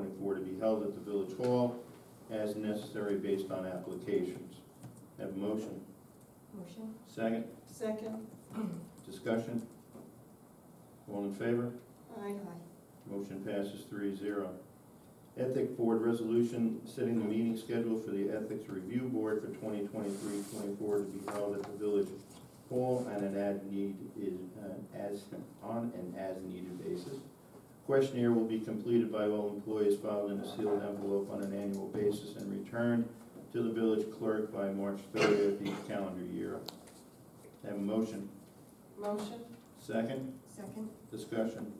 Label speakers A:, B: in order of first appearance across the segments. A: to be held at the village hall as necessary based on applications. Have a motion?
B: Motion?
A: Second,
C: Second,
A: discussion? All in favor?
C: aye.
A: Motion passes three zero. Ethic Board Resolution setting the meeting schedule for the Ethics Review Board for 2023-24 to be held at the Village Hall on an as-need, is, uh, as, on an as-needed basis. Questionnaire will be completed by all employees filed in a sealed envelope on an annual basis and returned to the village clerk by March 30th of each calendar year. Have a motion.
C: Motion,
A: Second,
B: Second?
A: discussion.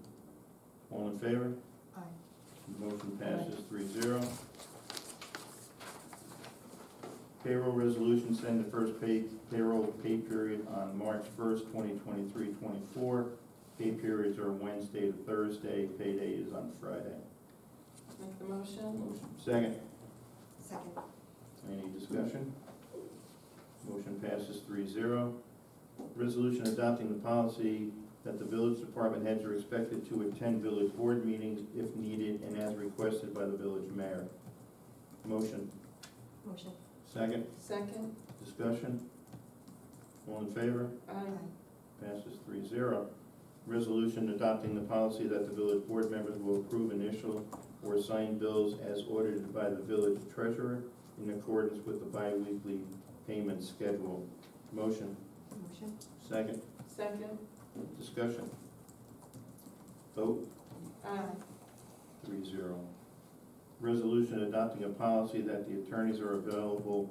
A: All in favor?
B: Aye.
A: Motion passes three zero. Payroll resolution, send the first pay, payroll pay period on March first, 2023-24. Pay periods are Wednesday to Thursday, payday is on Friday.
C: make the motion.
A: Motion Second,
B: Second?
A: any discussion? Motion passes three zero. Resolution adopting the policy that the village department heads are expected to attend village board meetings if needed and as requested by the village mayor. Motion.
B: Motion?
A: Second,
C: Second,
A: discussion? All in favor?
C: aye.
A: Passes three zero. Resolution adopting the policy that the village board members will approve initial or sign bills as ordered by the village treasurer in accordance with the biweekly payment schedule. Motion,
B: Motion?
A: second,
C: Second,
A: discussion. Vote,
C: aye.
A: three zero. Resolution adopting a policy that the attorneys are available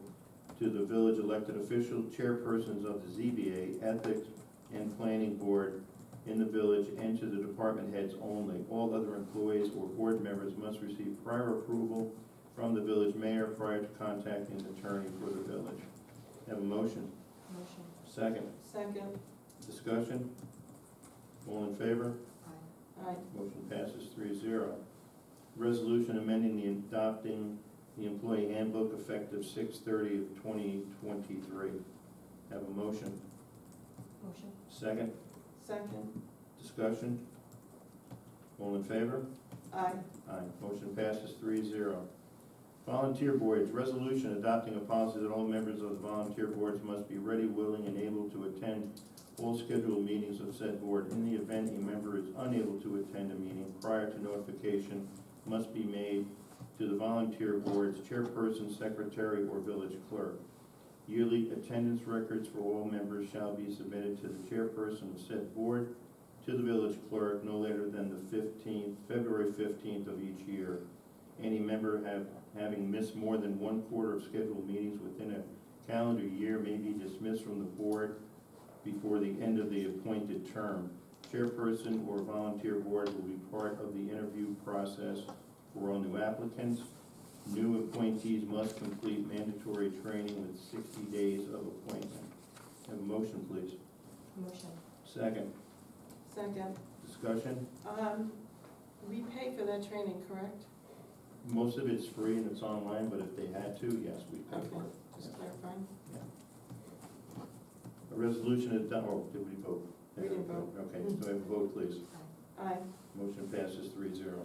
A: to the village elected official chairpersons of the ZBA, Ethics, and Planning Board in the village and to the department heads only. All other employees or board members must receive prior approval from the village mayor prior to contacting an attorney for the village. Have a motion?
B: Motion?
A: Second.
C: Second,
A: Discussion? All in favor?
B: Aye.
C: aye.
A: Motion passes three zero. Resolution amending the adopting the employee handbook effective six thirty of twenty twenty-three. Have a motion?
B: Motion?
A: Second,
C: Second,
A: discussion? All in favor?
C: aye.
A: Aye. Motion passes three zero. Volunteer boards, resolution adopting a policy that all members of the volunteer boards must be ready, willing, and able to attend all scheduled meetings of said board. In the event a member is unable to attend a meeting prior to notification must be made to the volunteer board's chairperson, secretary, or village clerk. Yearly attendance records for all members shall be submitted to the chairperson of said board to the village clerk no later than the fifteenth, February fifteenth of each year. Any member have, having missed more than one quarter of scheduled meetings within a calendar year may be dismissed from the board before the end of the appointed term. Chairperson or volunteer board will be part of the interview process for all new applicants. New appointees must complete mandatory training with sixty days of appointment. Have a motion, please.
B: Motion?
A: Second,
C: Second,
A: discussion?
C: um, we pay for that training, correct?
A: Most of it's free and it's online, but if they had to, yes, we could.
C: Okay, just clarifying.
A: A resolution is done, oh, did we vote?
C: We didn't vote. Mm-hmm.
A: Okay, so I have a vote, please.
C: Aye.
A: Motion passes three zero.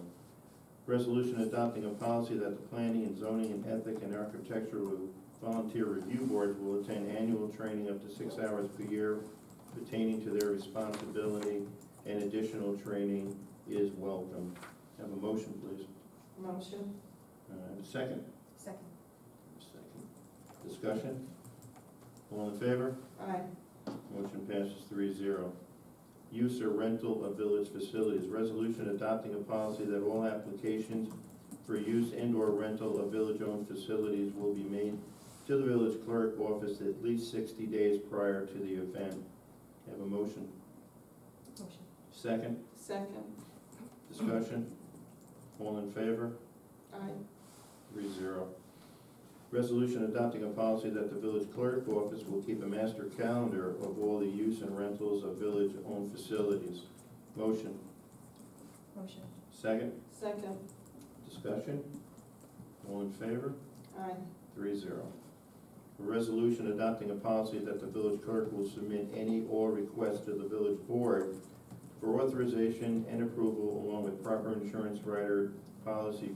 A: Resolution adopting a policy that the planning and zoning and ethic and architectural volunteer review boards will attend annual training up to six hours per year pertaining to their responsibility and additional training is welcome. Have a motion, please.
C: Motion,
A: Uh, Second?
B: Second?
A: Second. Discussion? All in favor?
C: aye.
A: Motion passes three zero. Use or rental of village facilities. Resolution adopting a policy that all applications for use and/or rental of village-owned facilities will be made to the village clerk office at least sixty days prior to the event. Have a motion.
B: Motion?
A: Second,
C: Second,
A: discussion? All in favor?
C: aye.
A: Three zero. Resolution adopting a policy that the village clerk office will keep a master calendar of all the use and rentals of village-owned facilities. Motion,
B: Motion?
A: second,
C: Second,
A: discussion? All in favor?
C: aye.
A: Three zero. A resolution adopting a policy that the village clerk will submit any or request to the village board for authorization and approval along with proper insurance rider policy